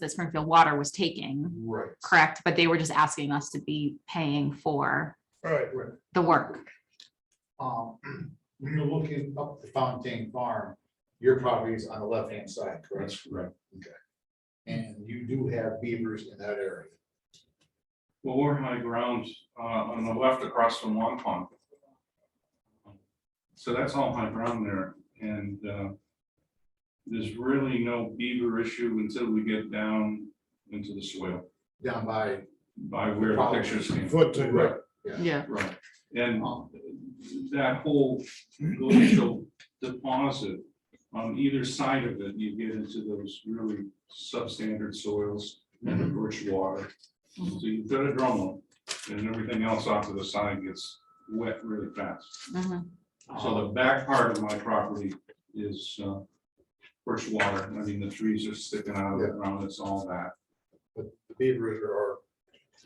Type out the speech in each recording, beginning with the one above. that Springfield Water was taking, Right. correct? But they were just asking us to be paying for Right, the work. um, when you're looking up the Fontaine Farm, your property is on the left-hand side, correct? That's correct. And you do have beavers in that area. Well, we're high ground, uh, on the left across from Long Pond. So that's all high ground there and, uh, there's really no beaver issue until we get down into the swale down by. by where the pictures came. Foot to Right. Yeah. Right. And Um, that whole glacial deposit on either side of it, you get into those really substandard soils and the rich water. So you put a drum on, and everything else off to the side gets wet really fast. Mhm. um, So the back part of my property is uh, rich water. I mean, the trees are sticking out of the ground. It's all that. The beavers are- are,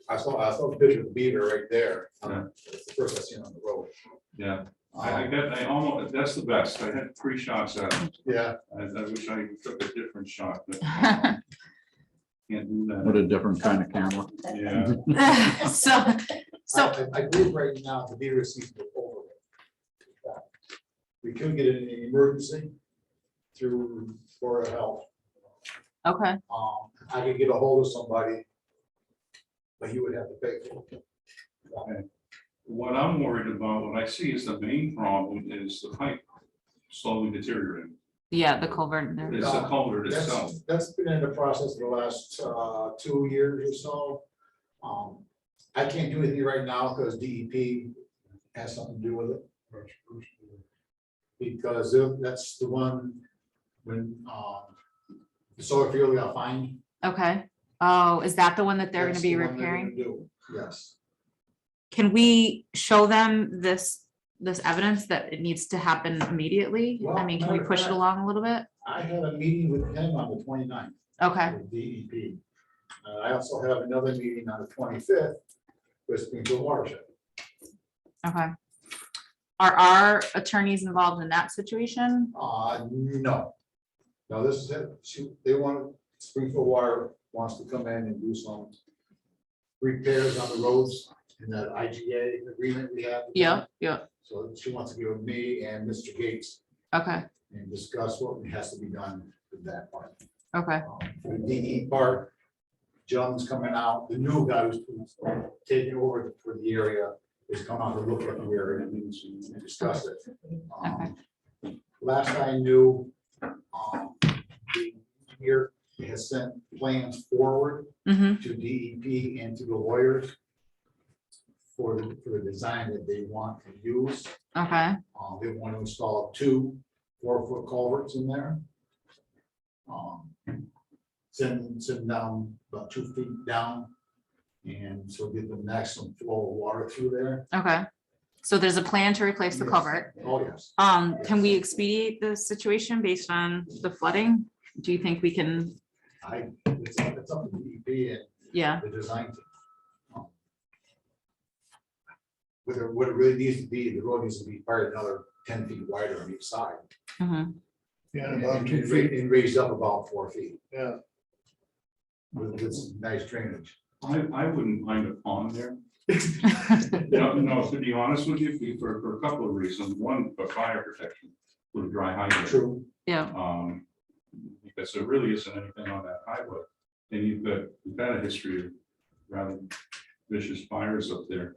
I saw, I saw a picture of the beaver right there. Um, Yeah. It's the first I seen on the road. Yeah, I I bet I almost, that's the best. I had three shots at it. Yeah, I I wish I took a different shot, but um, can't do What that. a different kind of camera. Yeah, So, so, I, I believe right now the beaver season is over. We could get an emergency through Board of Health. okay, Um, I could get a hold of somebody. But you would have to pay for it. what I'm worried about, what I see is the main problem is the pipe slowly deteriorating. yeah, the culvert there. It's the culvert itself. That's, that's been in the process for the last, uh, two years or so. Um, I can't do anything right now because DEP has something to do with it. Because if- that's the one when, um, the solar field got fined. Okay. Oh, is that the one that they're gonna that's be the one they're repairing? gonna do, Yes, Can we show them this, this evidence that it needs to happen immediately? I Well, mean, can we matter of push it fact- along a little bit? I had a meeting with him on the 29th. Okay, with DEP. Uh, I also have another meeting on the twenty-fifth with Springfield Watershed. okay. Are our attorneys involved in that situation? Uh, no. No, this is it. She, they want, Springfield Water wants to come in and do some repairs on the roads in that IGA agreement we have. Yeah, yeah, So she wants to be with me and Mr. Gates okay, and discuss what has to be done with that part. okay, Um, The DE part, John's coming out, the new guy who's taking over for the area is coming out to look at the area and discuss it. Um, Last I knew, um, the engineer has sent plans forward mm-hmm, to DEP and to the lawyers for the, for the design that they want to use. okay, Um, they want to install two four-foot culverts in there. Um, Send, send down about two feet down. And so get the maximum flow of water through there. okay. So there's a plan to replace the culvert. Oh, yes. Um, can we expedite the situation based on the flooding? Do you think we can, I, it's up it's up to DEP yeah, and the design. team. Um, Whether, what it really needs to be, the road needs to be part another ten feet wider on each side. mhm, Yeah, And about two and ra- feet, and raised up about four feet yeah. with, with some nice drainage. I, I wouldn't mind a pond there. No, no, to be honest with you, for- for, for a couple of reasons. One, for fire protection with a dry highway. True. yeah, Um, because there really isn't anything on that highway. And you've got, you've had a history of rather vicious fires up there.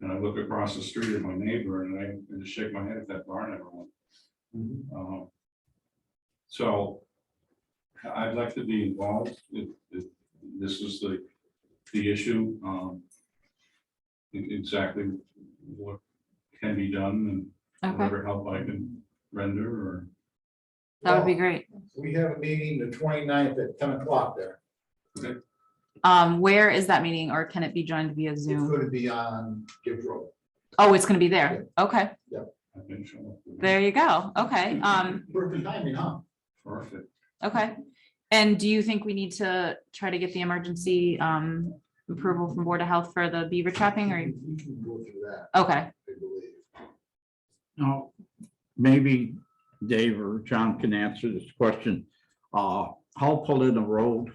And I look across the street at my neighbor and I and just shake my head at that barn everyone. Um, So I'd like to be involved if, if this is the, the issue. um, e- Exactly what can be done and okay, whatever help I can render or. that would be great. We have a meeting the 29th at ten o'clock there. Um, where is that meeting or can it be joined via It's Zoom? going to be on Gibbs Road. Oh, it's gonna be there. Okay, I can show up with it. there you go. Okay, um, Perfect timing, huh? Perfect. okay. And do you think we need to try to get the emergency um approval from Board of Health for the beaver trapping or? You can go through that, Okay, I believe. Now, maybe Dave or John can answer this question. Uh, how pull in a road